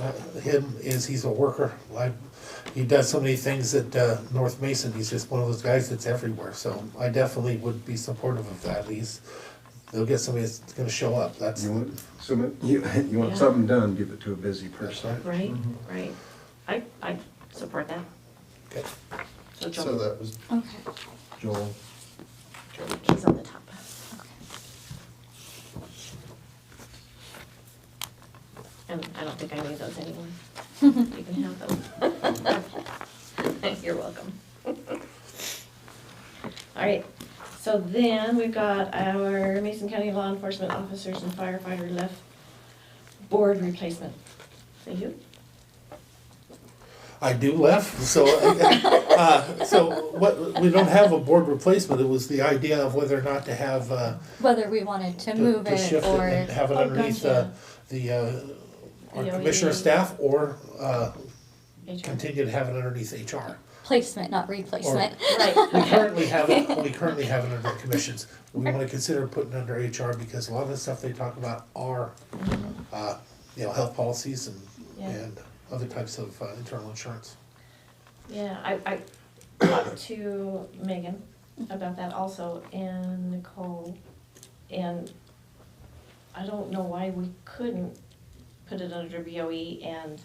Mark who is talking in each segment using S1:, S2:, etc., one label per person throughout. S1: Uh, him is he's a worker. I, he does so many things at uh, North Mason. He's just one of those guys that's everywhere. So I definitely would be supportive of that. He's they'll get somebody that's going to show up. That's
S2: You want, some- you, you want
S3: Yeah.
S2: something done, give it to a busy
S1: that's
S2: person.
S1: right.
S3: Right, right. I, I support that.
S1: Okay.
S3: So
S4: So
S3: Joel,
S4: that was
S5: Okay,
S2: Joel,
S3: he's on the top. And I don't think I need those anyway. You can have them. You're welcome. All right, so then we've got our Mason County Law Enforcement Officers and Firefighter Left Board Replacement. So you?
S1: I do left. So uh, so what we don't have a board replacement. It was the idea of whether or not to have. Uh,
S5: whether we wanted to
S1: to-
S5: move
S1: to
S5: it
S1: shift
S5: or.
S1: and Have it
S3: Oh,
S1: underneath uh,
S3: gotcha.
S1: the, uh, our
S3: The
S1: commissioner
S3: OED.
S1: staff or uh,
S3: HR?
S1: continue to have it underneath HR.
S5: Placement, not replacement.
S3: Right,
S1: We currently have it, we currently have it under commissions. We want to consider putting it under HR because a lot of the stuff they talk about are, uh, you know, health policies and,
S3: Yeah.
S1: and other types of uh, internal insurance.
S3: yeah, I, I talked to Megan about that also, and Nicole, and I don't know why we couldn't put it under BOE and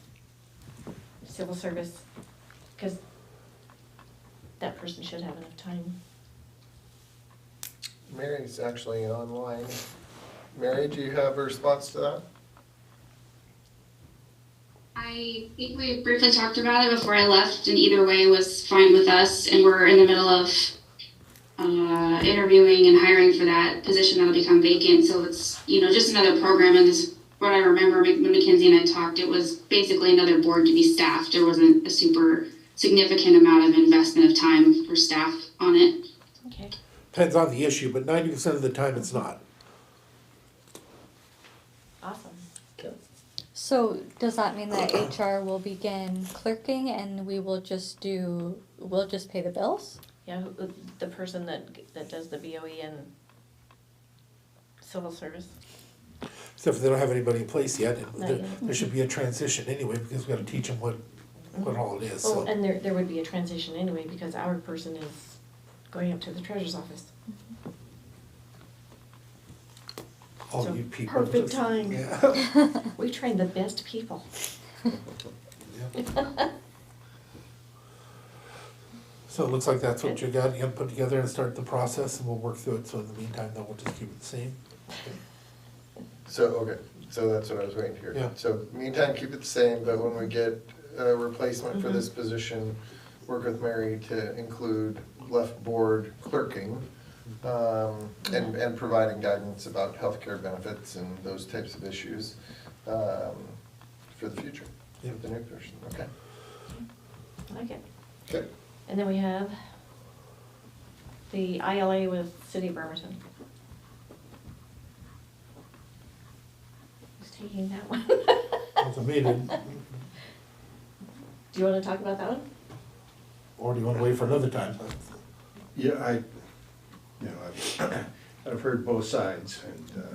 S3: civil service, because that person should have enough time.
S4: Mary's actually online. Mary, do you have a response to that?
S6: I think we briefly talked about it before I left, and either way was fine with us. And we're in the middle of uh, interviewing and hiring for that position that'll become vacant. So it's you know just another program. And this, what I remember Mc- when Mackenzie and I talked, it was basically another board to be staffed. There wasn't a super significant amount of investment of time for staff on it.
S3: Okay.
S1: Depends on the issue, but ninety percent of the time it's not.
S3: Awesome.
S5: So does that mean that HR will begin clerking and we will just do, we'll just pay the bills?
S3: Yeah, who- who- the person that, that does the BOE and civil service.
S1: Except for they don't have anybody in place yet. and
S3: Not
S1: There,
S3: yet.
S1: there should be a transition anyway because we've got to teach them what, what all it is, so.
S3: Oh, and there, there would be a transition anyway, because our person is going up to the treasurer's office.
S1: All
S3: so
S1: Oh, you people.
S3: perfect
S1: just-
S3: time.
S1: Yeah.
S3: We train the best people.
S1: So it looks like that's what you got, you gotta put together and start the process and we'll work through it, so in the meantime, then we'll just keep it the same.
S4: So, okay, so that's what I was waiting to hear.
S1: Yeah.
S4: So meantime, keep it the same, but when we get a replacement for this position, work with Mary to include left board clerking, um, and, and providing guidance about healthcare benefits and those types of issues, um, for the future, for the new person, okay?
S3: I like it.
S4: Okay.
S3: And then we have the ILA with City of Bremerton. Who's taking that one? Do
S1: At the meeting,
S3: you wanna talk about that one?
S1: or do you wanna wait for another time?
S2: yeah, I, you know, I've, I've heard both sides and, uh,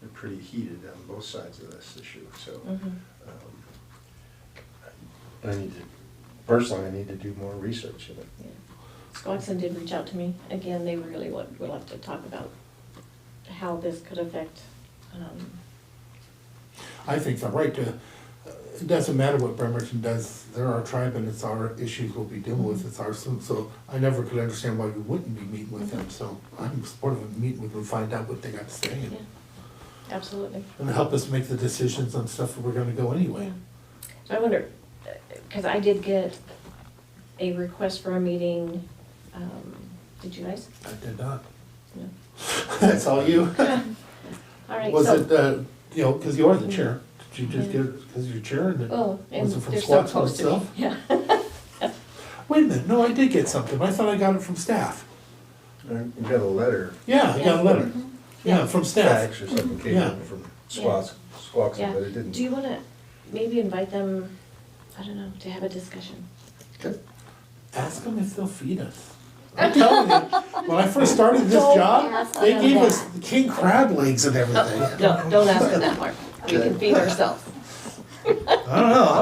S2: they're pretty heated on both sides of this issue, so.
S3: Mm.
S2: um, I need to, personally, I need to do more research in it.
S3: Swanson did reach out to me. Again, they really would, would love to talk about how this could affect, um,
S1: I think the right to, it doesn't matter what Bremerton does, they're our tribe and it's our issues we'll be dealing with, it's our, so- so I never could understand why we wouldn't be meeting with them, so I'm supportive of meeting with them, find out what they got to say and-
S3: yeah, absolutely.
S1: and help us make the decisions on stuff that we're gonna go anyway.
S3: So I wonder, because I did get a request for a meeting, um, did you guys?
S1: I did not.
S3: No.
S1: That's all you?
S3: All right,
S1: Was
S3: so,
S1: it, uh, you know, because you are the chair, did you just get it because you're chair and then,
S3: oh, and
S1: was it from
S3: they're so
S1: Swanson
S3: close to me,
S1: itself?
S3: yeah.
S1: wait a minute, no, I did get something, I thought I got it from staff.
S2: I got a letter,
S1: Yeah, I got a letter, yeah,
S3: Yeah.
S1: from staff.
S2: fax or something came
S1: Yeah.
S2: in from Squax, Squax,
S3: Yeah.
S2: but it didn't.
S3: Do you wanna maybe invite them, I don't know, to have a discussion?
S1: Ask them if they'll feed us. I'm telling you, when I first started this job,
S5: ask
S1: they
S5: them
S1: gave us
S5: that.
S1: king crab legs and everything.
S3: No, don't ask them that, Mark. We can feed ourselves.
S1: I don't know,